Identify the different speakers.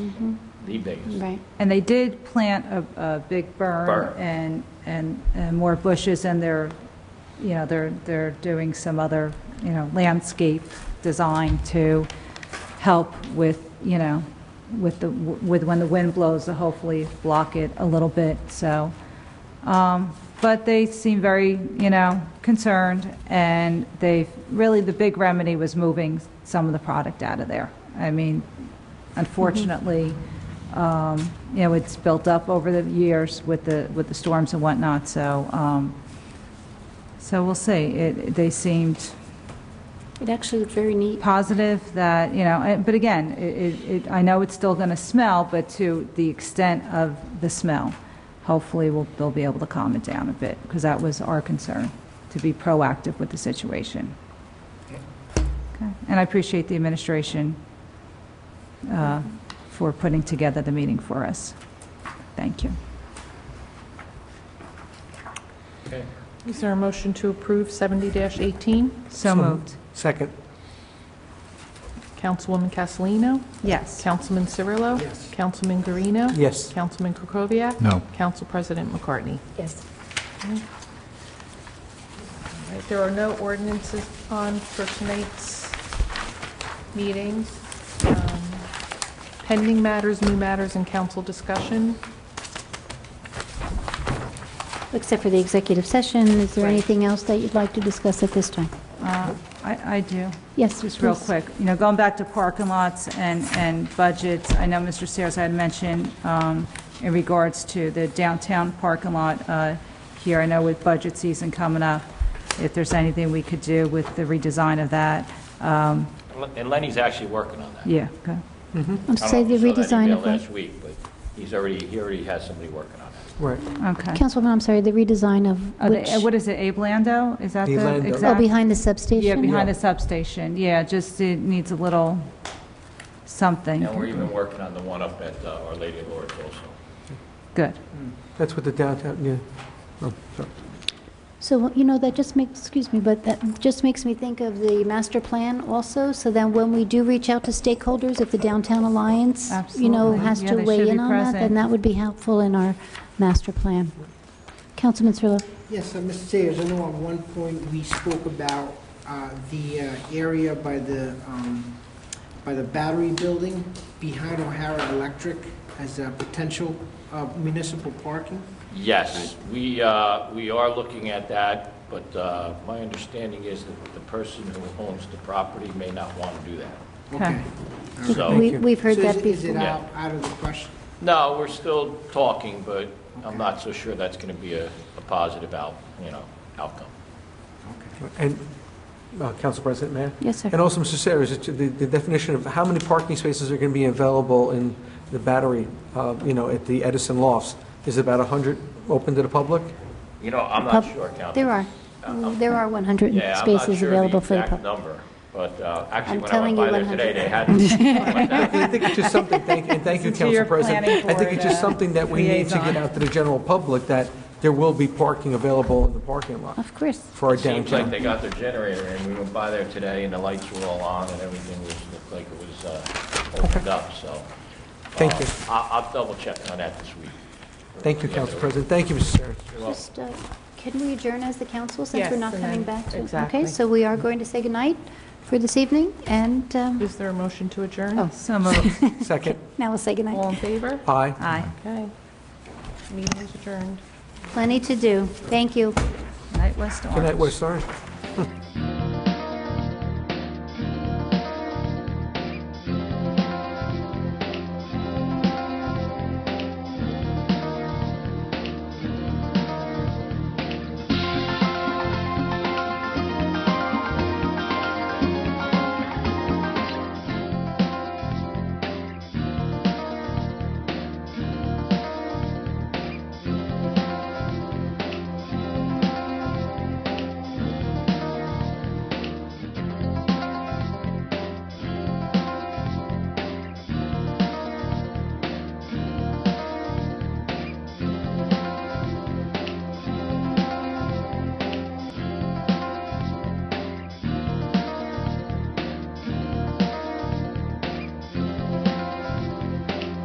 Speaker 1: the biggest.
Speaker 2: Right.
Speaker 3: And they did plant a, a big
Speaker 1: Burn.
Speaker 3: burn and, and, and more bushes, and they're, you know, they're, they're doing some other, you know, landscape design to help with, you know, with the, with when the wind blows, to hopefully block it a little bit, so. Um, But they seem very, you know, concerned, and they've, really, the big remedy was moving some of the product out of there. I mean, unfortunately, um, you know, it's built up over the years with the, with the storms and whatnot, so, um, so we'll see. It, they seemed
Speaker 2: It actually looked very neat.
Speaker 3: positive that, you know, eh, but again, it- it, it, I know it's still going to smell, but to the extent of the smell, hopefully we'll, they'll be able to calm it down a bit, because that was our concern, to be proactive with the situation. Okay, And I appreciate the administration uh, for putting together the meeting for us. Thank you.
Speaker 1: Okay.
Speaker 4: Is there a motion to approve 70-18?
Speaker 3: So moved.
Speaker 5: Second.
Speaker 4: Councilwoman Castellino?
Speaker 3: Yes.
Speaker 4: Councilman Cirillo?
Speaker 5: Yes.
Speaker 4: Councilman Guarino?
Speaker 5: Yes.
Speaker 4: Councilman Krokoviac?
Speaker 6: No.
Speaker 4: Council President McCartney?
Speaker 2: Yes.
Speaker 4: All right, There are no ordinances on for tonight's meeting. Um, Pending matters, new matters, and council discussion.
Speaker 2: Except for the executive session, is there
Speaker 4: Right.
Speaker 2: anything else that you'd like to discuss at this time?
Speaker 3: Uh, I, I do.
Speaker 2: Yes,
Speaker 3: Just real
Speaker 2: please.
Speaker 3: quick, you know, going back to parking lots and, and budgets, I know Mr. Sayers had mentioned um, in regards to the downtown parking lot uh, here, I know with budget season coming up, if there's anything we could do with the redesign of that, um,
Speaker 1: And Lenny's actually working on that.
Speaker 3: yeah, okay.
Speaker 2: I'm
Speaker 1: I don't
Speaker 2: sorry,
Speaker 1: know
Speaker 2: the
Speaker 1: if you saw that
Speaker 2: redesign
Speaker 1: email
Speaker 2: of what?
Speaker 1: Last week, but he's already, he already has somebody working on it.
Speaker 5: Right.
Speaker 3: okay.
Speaker 2: Councilwoman, I'm sorry, the redesign of
Speaker 3: Are
Speaker 2: which?
Speaker 3: they- What is it, Abe Lando? Is that
Speaker 5: Abe
Speaker 3: the
Speaker 5: Lando.
Speaker 2: Oh,
Speaker 3: exact?
Speaker 2: behind the substation?
Speaker 3: Yeah, behind the substation, yeah, just it needs a little something.
Speaker 1: And we're even working on the one up at uh, Our Lady of Lords also.
Speaker 3: Good,
Speaker 5: That's what the downtown, yeah. Oh, sorry.
Speaker 2: So, you know, that just makes, excuse me, but that just makes me think of the master plan also, so then when we do reach out to stakeholders, if the Downtown Alliance, you know,
Speaker 3: Absolutely.
Speaker 2: has
Speaker 3: Yeah,
Speaker 2: to
Speaker 3: they should
Speaker 2: weigh
Speaker 3: be
Speaker 2: in on that,
Speaker 3: present.
Speaker 2: then that would be helpful in our master plan. Councilman Cirillo?
Speaker 7: Yes, uh, Mr. Sayers, I know at one point we spoke about uh, the uh, area by the, um, by the battery building behind O'Hara Electric as a potential uh, municipal parking.
Speaker 1: Yes, we, uh, we are looking at that, but uh, my understanding is that the person who owns the property may not want to do that.
Speaker 3: Okay.
Speaker 7: Okay.
Speaker 1: So-
Speaker 2: We- We've
Speaker 7: So
Speaker 2: heard
Speaker 7: is
Speaker 2: that
Speaker 7: it- is it
Speaker 2: before.
Speaker 1: Yeah.
Speaker 7: out out of the question?
Speaker 1: No, we're still talking, but I'm not so sure that's going to be a, a positive out, you know, outcome.
Speaker 5: And, uh, Council President, Mayor?
Speaker 2: Yes, sir.
Speaker 5: And also, Mr. Sayers, it's the the definition of how many parking spaces are going to be available in the battery, uh, you know, at the Edison Lofts? Is it about 100 open to the public?
Speaker 1: You know, I'm not
Speaker 2: Pub-
Speaker 1: sure, Council.
Speaker 2: There are, there are 100
Speaker 1: Yeah, I'm not
Speaker 2: spaces
Speaker 1: sure
Speaker 2: available for the
Speaker 1: exact
Speaker 2: public.
Speaker 1: number, but uh, actually,
Speaker 2: I'm
Speaker 1: when I
Speaker 2: telling
Speaker 1: went
Speaker 2: you
Speaker 1: by there today,
Speaker 2: 100.
Speaker 1: they had. Like
Speaker 5: I think it's just something, thank, and thank you,
Speaker 3: Listen to your
Speaker 5: Council President.
Speaker 3: planning
Speaker 5: I think it's just
Speaker 3: board, uh,
Speaker 5: something that we need to
Speaker 3: liaison.
Speaker 5: get out to the general public, that there will be parking available in the parking lot
Speaker 2: Of course.
Speaker 5: for our
Speaker 1: that. Seems like
Speaker 5: downtown.
Speaker 1: they got their generator, and we went by there today, and the lights were all on, and everything was, looked like it was uh, opened up, so. uh,
Speaker 5: Thank you.
Speaker 1: I'll, I'll double check on that this week.
Speaker 5: Thank you,
Speaker 1: Yeah,
Speaker 5: Council
Speaker 1: they're-
Speaker 5: President. Thank you, Mr. Sayers.
Speaker 2: Just, uh, can we adjourn as the council since we're
Speaker 4: Yes,
Speaker 2: not
Speaker 4: and
Speaker 2: coming
Speaker 4: then-
Speaker 2: back to?
Speaker 4: exactly.
Speaker 2: Okay, so we are going to say goodnight for this evening, and um,
Speaker 4: Is there a motion to adjourn?
Speaker 2: Oh.
Speaker 3: so moved,
Speaker 5: Second.
Speaker 2: now we'll say
Speaker 4: All
Speaker 2: goodnight.
Speaker 4: in favor?
Speaker 5: Aye.
Speaker 3: aye.
Speaker 4: Okay. Meeting is adjourned.
Speaker 2: Plenty to do. Thank you.
Speaker 3: Night West Orange.
Speaker 5: Good night, West Orange.